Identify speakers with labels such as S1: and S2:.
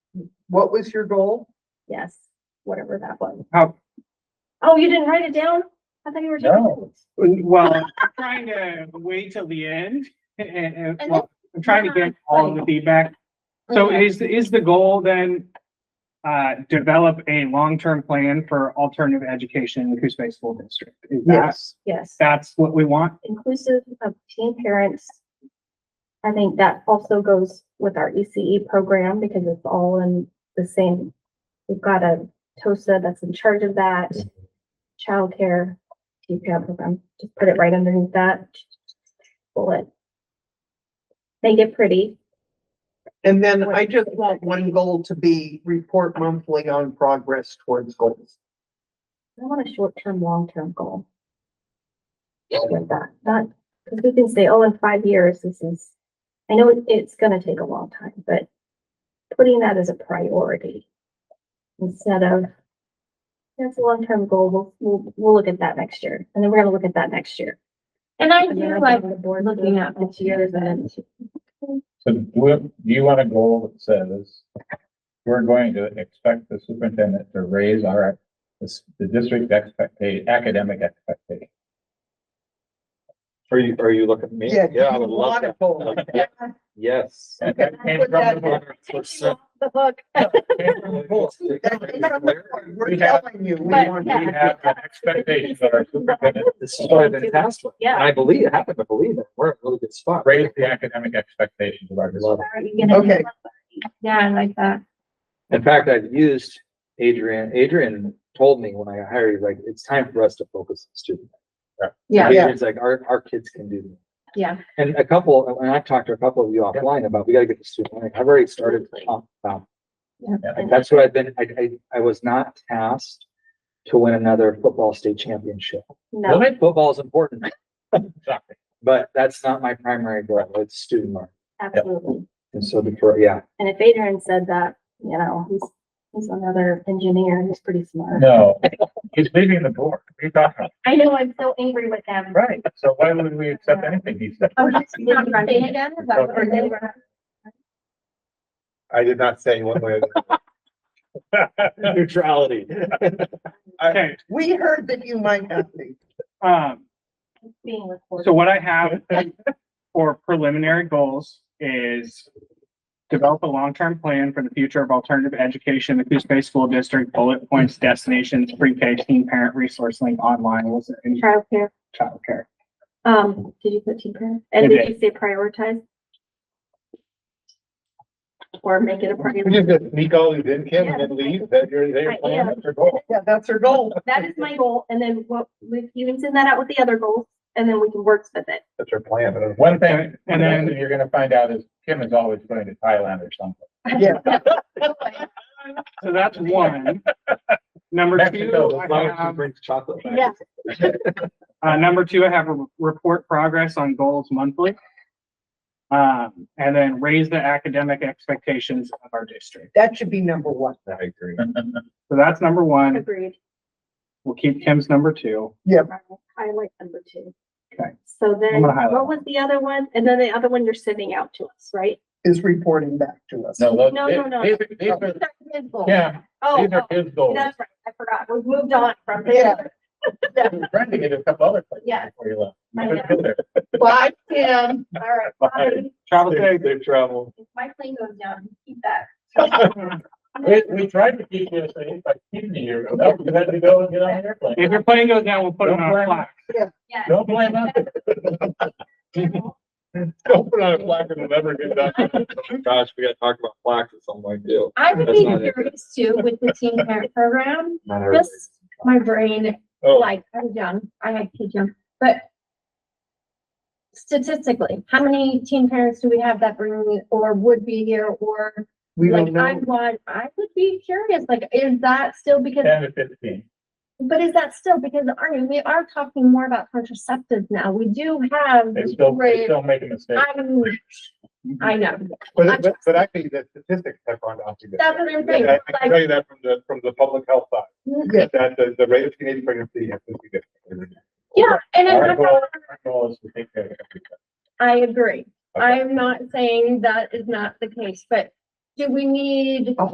S1: what was your goal?
S2: Yes, whatever that was.
S1: How-
S2: Oh, you didn't write it down? I thought you were taking
S1: No.
S2: notes.
S1: Well, I'm trying to wait till the end and, and,
S2: And
S1: well, I'm trying to get all of the feedback. So
S2: Okay.
S1: is, is the goal then, uh, develop a long-term plan for alternative education in the Coos Bay School District? Is that,
S3: Yes,
S2: Yes,
S1: that's what we want?
S2: inclusive of teen parents. I think that also goes with our ECE program because it's all in the same. We've got a TOSA that's in charge of that, childcare, teen parent program, just put it right underneath that. Bullet. Make it pretty.
S3: and then I just want one goal to be report monthly on progress towards goals.
S2: I want a short-term, long-term goal. With that, not, because we can say, oh, in five years, this is, I know it- it's gonna take a long time, but putting that as a priority instead of, that's a long-term goal, we'll, we'll, we'll look at that next year, and then we're gonna look at that next year.
S4: And I
S2: And then
S4: do
S2: I
S4: like
S2: think the board
S4: looking
S2: will-
S4: at the years and
S5: So do we- do you want a goal that says we're going to expect the superintendent to raise our, the the district expectation, academic expectation?
S6: Are you, are you looking at me? I would love that.
S3: that.
S6: Yes.
S5: And that came from the board.
S2: Takes you off The hook.
S5: Came from the board.
S3: We're telling you, we
S5: We
S3: want
S5: want-
S2: yeah.
S5: we have an expectation that our superintendent
S6: This is better than the past one.
S2: Yeah.
S6: And I believe, I happen to believe that we're in a really good spot.
S5: raise the academic expectations of our district.
S2: Are you gonna-
S3: Okay.
S4: Yeah, I like that.
S6: In fact, I've used Adrian, Adrian told me when I hired, he's like, it's time for us to focus on student.
S4: Yeah,
S3: Yeah.
S6: Adrian's like, our, our kids can do this.
S4: yeah.
S6: And a couple, and I've talked to a couple of you offline about, we gotta get the student, learning. I've already started. to talk about
S4: Yeah.
S6: that. And that's what I've been, I, I, I was not tasked to win another football state championship.
S2: No,
S6: Football is important,
S5: Soccer.
S6: but that's not my primary goal, it's student learning.
S2: absolutely.
S6: And so before, yeah,
S2: And if Adrian said that, you know, he's, he's another engineer, he's pretty smart.
S5: No, he's leaving the board. What are you talking about?
S2: I know, I'm so angry with him.
S5: Right, so why would we accept anything he said?
S4: Oh, that's not right. Say it again, is that what
S2: Or they
S4: we're-
S2: were-
S7: I did not say one way. or the other.
S6: neutrality.
S1: Okay,
S3: We heard that you might not be.
S1: um,
S2: Being recorded.
S1: So what I have for preliminary goals is develop a long-term plan for the future of alternative education, in the Coos Bay School District, bullet points, destinations, pre-K, teen parent resource link online, was it in
S2: Childcare,
S1: childcare?
S2: um, did you put teen parent? And
S1: I
S2: did you say prioritize? Or make it a
S7: We
S2: priority?
S7: just gotta sneak all these in, Kim, and then leave, that you're there.
S2: Yeah.
S7: That's your goal.
S3: Yeah, that's her goal.
S2: That is my goal, and then what, we, you can send that out with the other goals, and then we can work with it.
S7: That's your plan. but
S5: One thing,
S1: And
S5: and
S1: then-
S5: then you're gonna find out is Kim is always going to Thailand or something.
S3: Yeah.
S1: So that's one. Number two,
S5: Mexico,
S1: I
S6: As long as you
S1: have-
S6: bring chocolate back.
S2: Um, Yeah.
S1: uh, number two, I have a report progress on goals monthly. Um, and then raise the academic expectations of our district.
S3: That should be number one.
S7: I agree.
S1: So that's number one.
S2: Agreed.
S1: We'll keep Kim's number two.
S2: Highlight number two.
S1: Okay.
S2: So
S1: I'm
S2: then,
S1: gonna highlight.
S2: what was the other one? And then the other one you're sending out to us, right?
S3: Is reporting back to us.
S5: No, those-
S2: No, no, no.
S5: these are- these are, yeah,
S2: Oh,
S5: these are his
S2: oh,
S5: goals.
S2: that's right. I forgot. We've moved on from
S3: Yeah.
S2: there.
S5: You were Trying to get a couple other places
S2: Yeah.
S5: before you left.
S2: I
S5: You couldn't go
S3: Bye, Kim.
S2: All right.
S5: Bye.
S1: Travel
S5: there.
S1: safe.
S5: Safe travel.
S2: If my plane goes down, keep that.
S5: We, we tried to keep you safe by keeping you here, but you had to go and get on an airplane.
S1: If your plane goes down, we'll put it on a plaque.
S2: Yes.
S5: Don't blame us.
S7: Don't put on a plaque and never get done.
S6: Gosh, we gotta talk about plaques at some point too.
S4: I would
S6: That's
S4: be
S6: not it.
S4: curious too with the teen parent program,
S6: Not everybody.
S4: just my brain,
S7: Oh,
S4: like, I'm young, I had kids young, but statistically, how many teen parents do we have that bring or would be here or
S3: We don't
S4: like I
S3: know.
S4: want, I would be curious, like, is that still because
S5: Ten to fifteen.
S4: But is that still, because Arnie, we are talking more about contraceptives now, we do have.
S5: They still, they
S4: great-
S5: still Mm-hmm. make a mistake.
S4: I'm, I know,
S7: but, but, but actually, the statistics have gone down. significantly.
S4: That's what I'm saying,
S7: I I can
S4: like- Mm-hmm.
S7: tell you that from the, from the public health side,
S3: Yeah.
S7: that the, the rate of teenage pregnancy has been significant.
S4: yeah, and I'm
S5: Our
S4: not,
S5: goal,
S4: gonna-
S5: our goal is to take care of everything.
S4: I agree,
S7: Okay.
S4: I'm not saying that is not the case, but do we need